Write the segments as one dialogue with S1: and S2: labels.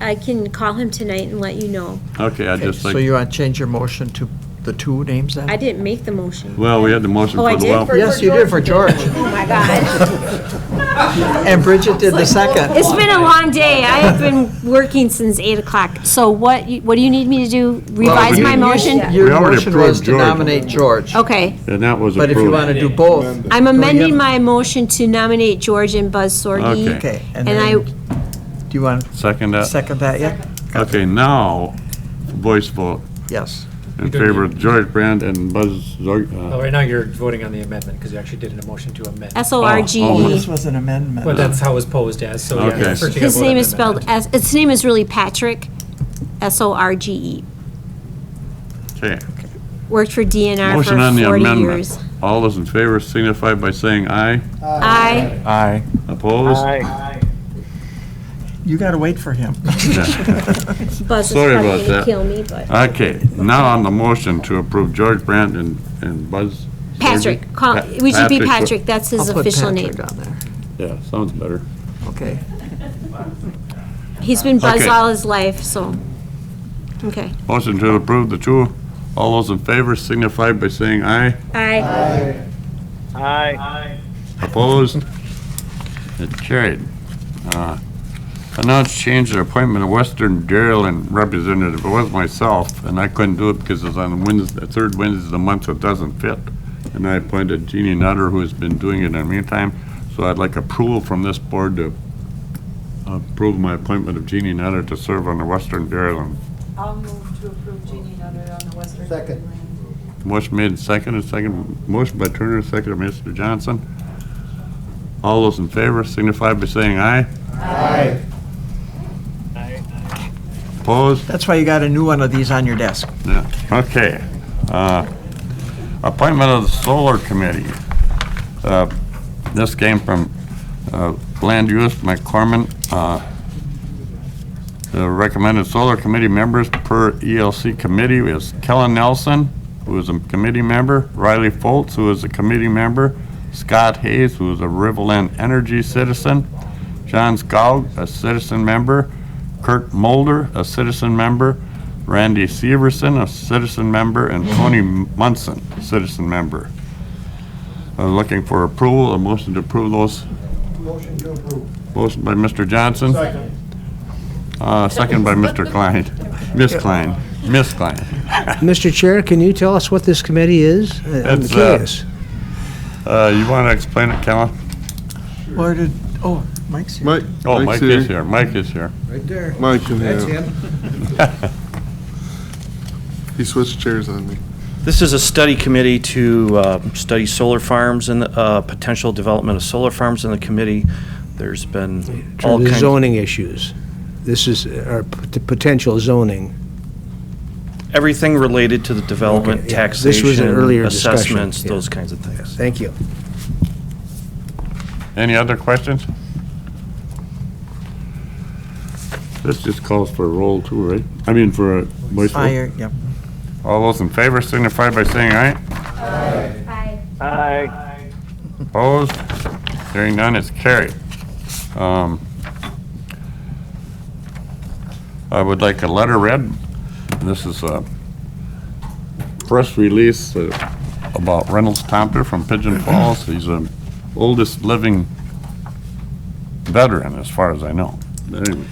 S1: I can call him tonight and let you know.
S2: Okay, I
S3: Okay,
S2: just
S3: So
S2: think,
S3: you want to change your motion to the two names then?
S1: I didn't make the motion.
S2: well, we had the motion
S1: Oh, I
S2: for the
S1: did
S2: well.
S1: for-
S3: Yes, you did for George.
S4: Oh, my God.
S3: And Bridget did the second.
S1: It's been a long day. I have been working since 8 o'clock. So what, you- what do you need me to do? Revise
S2: we-
S1: my motion?
S2: Yeah. We
S3: Your
S2: already
S3: motion was
S2: approved
S3: to
S2: George.
S3: nominate George.
S1: Okay.
S2: And that was
S3: But if you want
S2: approved.
S3: to do both,
S1: I'm
S3: we
S1: amending
S3: have-
S1: my motion to nominate George and Buzz Sorgi.
S2: Okay.
S3: okay.
S1: And
S3: then-
S1: I,
S3: Do you want to
S2: Second that?
S3: second that yet?
S2: Okay, now, voice vote
S3: Yes.
S2: in
S5: You don't
S2: favor
S5: need-
S2: of George Brand and Buzz Zorg.
S5: Well,
S2: uh,
S5: right now you're voting on the amendment because you actually did a motion to amend.
S2: Oh,
S1: S-O-R-G-E.
S2: this
S3: was an amendment.
S5: But that's how it was posed as, so yeah.
S2: Okay.
S5: first you gotta
S1: His
S5: vote on
S1: name
S5: the
S1: is spelled,
S5: amendment.
S1: S. his name is really Patrick, S-O-R-G-E.
S2: Okay.
S1: E. Worked for DNR
S2: Motion on
S1: for
S2: the
S1: 40
S2: amendment.
S1: years.
S2: All those in favor signify by saying aye.
S1: Aye.
S6: Aye.
S2: Opposed?
S3: You got to wait for him.
S1: Buzz is
S2: Sorry
S1: probably
S2: about
S1: going to
S2: that.
S1: kill me, but.
S2: Okay, now on the motion to approve George Brand and, and Buzz. Zorgi?
S1: Patrick, call,
S2: Pa-
S1: it should be Patrick, that's
S3: I'll
S1: his
S3: put
S1: official name.
S3: Patrick on there.
S2: Yeah, sounds better.
S3: Okay.
S1: He's been Buzz
S2: Okay.
S1: all his life, so, okay.
S2: Motion to approve the two. All those in favor signify by saying aye.
S1: Aye.
S2: Opposed? It carried. Uh, Announce change the appointment of Western Dairyland representative. It was myself, and I couldn't do it because it's on Wednesday, the third Wednesday of the month, so it doesn't fit. And I appointed Jeannie Nutter, who has been doing it in the meantime, so I'd like approval from this board to approve my appointment of Jeannie Nutter to serve on the Western Dairyland.
S7: I'll move to approve Jeannie Nutter on the Western Second.
S2: Motion made and seconded, second, motion by Turner, second by Mr. Johnson. All those in favor signify by saying aye. Opposed?
S3: That's why you got a new one of these on your desk.
S2: No. Okay. Uh, Appointment of the Solar Committee. Uh, This came from uh, Land Use McCormick. Uh, The recommended Solar Committee members per ELC committee is Kellen Nelson, who is a committee member, Riley Foltz, who is a committee member, Scott Hayes, who is a Riverland Energy citizen, John Scowg, a citizen member, Kurt Mulder, a citizen member, Randy Severson, a citizen member, and Tony Munson, citizen member. Uh, Looking for approval, a motion to approve those. Motion to approve. Motion by Mr. Johnson. Second. Uh, second by Mr. Klein. Miss Klein, Miss Klein.
S8: Mr. Chair, can you tell us what this committee is? Uh, I'm
S2: It's, uh,
S8: curious.
S2: Uh, you want to explain it, Kellen?
S3: Where did, oh, Mike's here.
S9: Mike,
S2: Oh, Mike
S9: Mike's
S2: is here, Mike is here.
S6: Right there.
S9: Mike can
S6: That's
S9: have-
S6: him.
S9: He switched chairs on me.
S10: This is a study committee to uh, study solar farms and uh, potential development of solar farms in the committee. There's been all
S8: The
S10: kinds,
S8: zoning issues. This is uh, our p- potential zoning.
S10: everything related to the development,
S8: Okay, yeah. This was an earlier
S10: taxation,
S8: discussion,
S10: assessments,
S8: yeah.
S10: those kinds of things.
S8: Thank you.
S2: Any other questions? This just calls for a roll too, right? I mean, for a voice vote.
S3: Fire, yep.
S2: All those in favor signify by saying aye.
S1: Aye.
S2: Opposed? Hearing none, it's carried. Um, I would like a letter read. This is a press release uh, about Reynolds Tomter from Pigeon Falls. He's the oldest living veteran, as far as I know. But anyway,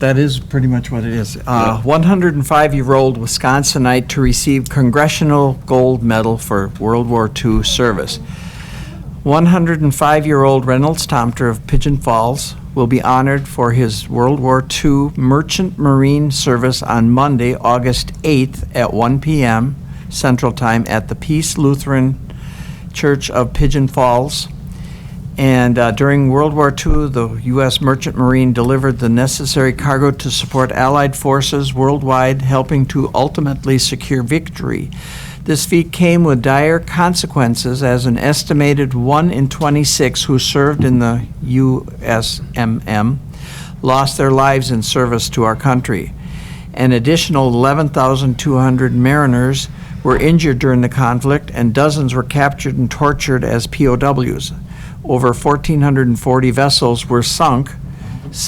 S3: That is pretty much what it is. Uh, 105-year-old Wisconsinite to receive Congressional Gold Medal for World War II service. 105-year-old Reynolds Tomter of Pigeon Falls will be honored for his World War II Merchant Marine service on Monday, August 8th at 1 p.m. Central Time at the Peace Lutheran Church of Pigeon Falls. And uh, during World War II, the U.S. Merchant Marine delivered the necessary cargo to support Allied forces worldwide, helping to ultimately secure victory. This feat came with dire consequences, as an estimated 1 in 26 who served in the USMM lost their lives in service to our country. An additional 11,200 mariners were injured during the conflict, and dozens were captured and tortured as POWs. Over 1,440 vessels were sunk,